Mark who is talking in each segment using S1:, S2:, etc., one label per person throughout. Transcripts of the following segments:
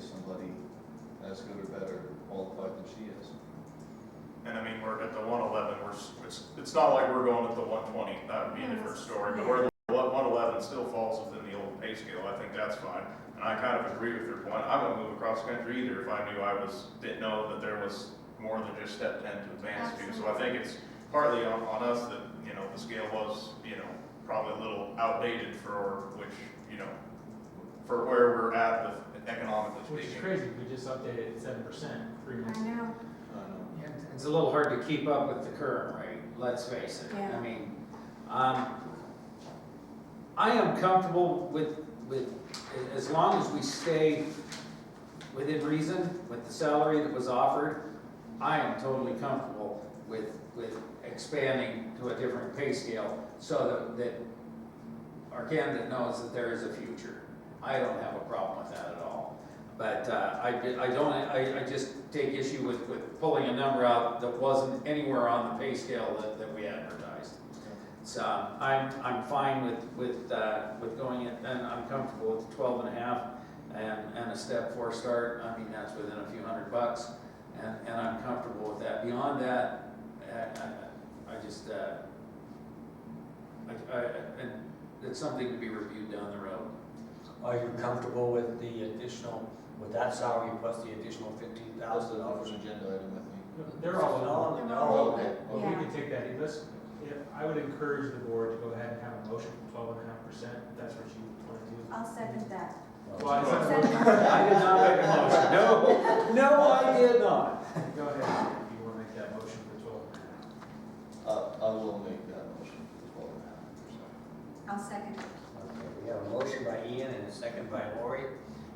S1: somebody as good or better qualified than she is.
S2: And I mean, we're at the one eleven, we're, s- it's, it's not like we're going at the one twenty, that would be a
S3: No,
S2: different
S3: that's-
S2: story, but
S3: yeah.
S2: we're, one eleven still falls within the old pay scale, I think that's fine. And I kind of agree with your point, I wouldn't move across the country either if I knew I was, didn't know that there was more than just step ten to advance to. So I think it's partly on, on us that, you know, the scale was, you know, probably a little outdated for which, you know, for where we're at with economically
S4: Which is
S2: speaking.
S4: crazy, we just updated it seven percent three
S3: I
S4: months. ago.
S3: know,
S1: I
S5: Yeah, It's a little hard to keep up with the current rate, let's face it.
S3: Yeah.
S5: I mean, um, I am comfortable with, with, as long as we stay within reason with the salary that was offered, I am totally comfortable with, with expanding to a different pay scale so that, that our candidate knows that there is a future. I don't have a problem with that at all. But uh, I, I don't, I, I just take issue with, with pulling a number out that wasn't anywhere on the pay scale that, that we advertised. So I'm, I'm fine with, with, uh, with going it, and I'm comfortable with twelve and a half and, and a step four start. I mean, that's within a few hundred bucks and, and I'm comfortable with that. Beyond that, I, I, I just, uh, I, I, and it's something to be reviewed down the road.
S6: Are you comfortable with the additional, with that salary plus the additional fifteen
S1: That's the
S6: thousand dollars?
S1: numbers agenda item with me.
S4: They're all in all.
S3: They're
S1: all in
S4: Oh, Well, we
S3: Yeah.
S4: can take that, let's, if, I would encourage the board to go ahead and have a motion for twelve and a half percent, if that's what you want to do.
S3: I'll second that.
S4: Well, I said-
S5: I did not make a motion, no, no, I did not.
S4: Go ahead, if you want to make that motion for twelve and a half.
S1: I, Uh, I will make that motion for twelve and a half percent.
S3: I'll second it.
S6: Okay, we have a motion by Ian and a second by Lori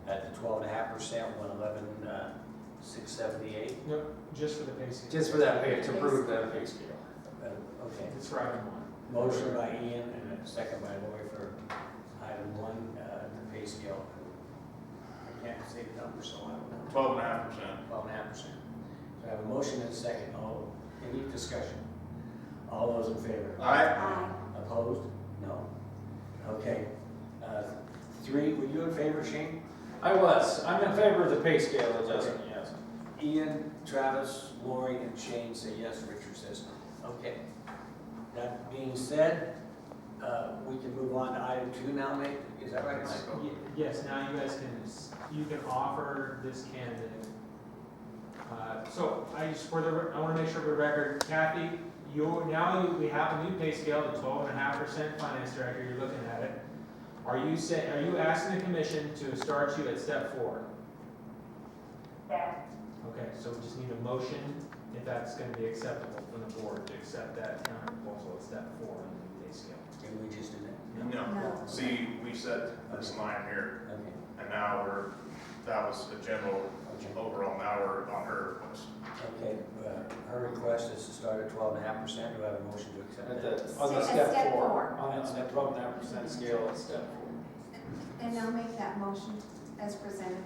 S6: at the twelve and a half percent, one eleven, uh, six seventy-eight.
S4: No, just for the pay scale.
S5: Just for that pay, to prove that pay scale.
S6: Okay,
S4: It's right in one.
S6: motion by Ian and a second by Lori for item one, uh, the pay scale. I can't say the number, so I don't know.
S2: Twelve and a half percent.
S6: twelve and a half percent. So I have a motion and a second, all, any discussion? All those in favor?
S2: Aye.
S3: Aye.
S6: Opposed? No. Okay. Uh, Three, were you in favor, Shane?
S5: I was, I'm in favor of the pay scale adjustment, yes.
S6: Ian, Travis, Lori, and Shane say yes, Richard says no. Okay. That being said, uh, we can move on to item two now, mate? Is that right, Mike?
S4: Ye- Yes, now you guys can, s- you can offer this candidate. Uh, So I just, for the, re- I want to make sure for the record, Kathy, you're, now you- we have a new pay scale, the twelve and a half percent finance director, you're looking at it. Are you say, are you asking the commission to start you at step four? Okay, so we just need a motion, if that's going to be acceptable from the board, to accept that counter proposal at step four on the new pay scale.
S6: Did we just do that?
S2: No,
S3: No.
S2: see, we set this line here,
S6: Okay,
S2: and now we're, that was the general
S6: okay.
S2: overall, now we're on her request.
S6: Okay, uh, her request is to start at twelve and a half percent. Do I have a motion to accept
S5: At
S6: that?
S5: the, on the
S3: At
S5: step
S3: step
S5: four,
S3: four.
S5: on the step twelve and a half percent scale, it's step four.
S3: And I'll make that motion as presented.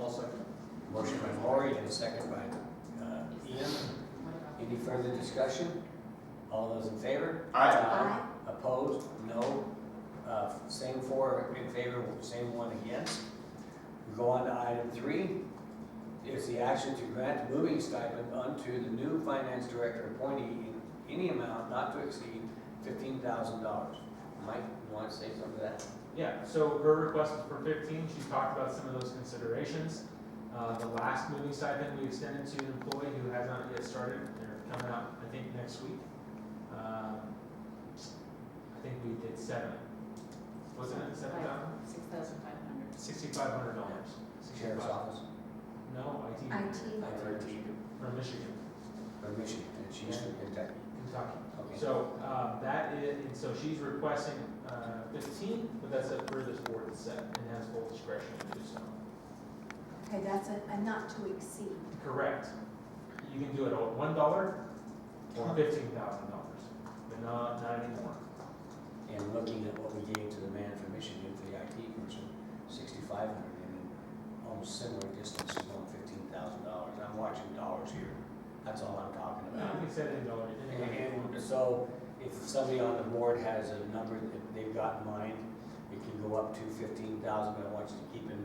S1: I'll second.
S6: Motion by Lori and a second by uh, Ian. Any further discussion? All those in favor?
S2: Aye.
S6: Opposed? No. Uh, Same four in favor, same one against. We go on to item three. Is the action to grant the moving stipend unto the new finance director appointee in any amount not to exceed fifteen thousand dollars. Mike, you want to say something to that?
S4: Yeah, so her request was for fifteen, she talked about some of those considerations. Uh, the last moving stipend we extended to an employee who has not yet started, they're coming out, I think, next week. Um, I think we did seven, wasn't it seven thousand?
S7: Six thousand five hundred.
S4: Sixty-five hundred dollars.
S6: Sheriff's Office,
S4: No, IT.
S3: IT.
S4: From Michigan,
S6: or Michigan, and she's from Kentucky.
S4: Kentucky.
S6: Okay.
S4: So, uh, that is, and so she's requesting, uh, fifteen, but that's up for this board to set and has full discretion to do so.
S3: Okay, that's a, a not to exceed.
S4: Correct. You can do it at one dollar or fifteen thousand dollars, but not, not anymore.
S6: And looking at what we gave to the man from Michigan for the IT person, sixty-five hundred, and then almost similar distance, is only fifteen thousand dollars. I'm watching dollars here, that's all I'm talking
S4: You
S6: about.
S4: can set it in dollars.
S6: And- And so, if somebody on the board has a number that they've got in mind, it can go up to fifteen thousand, but I want you to keep in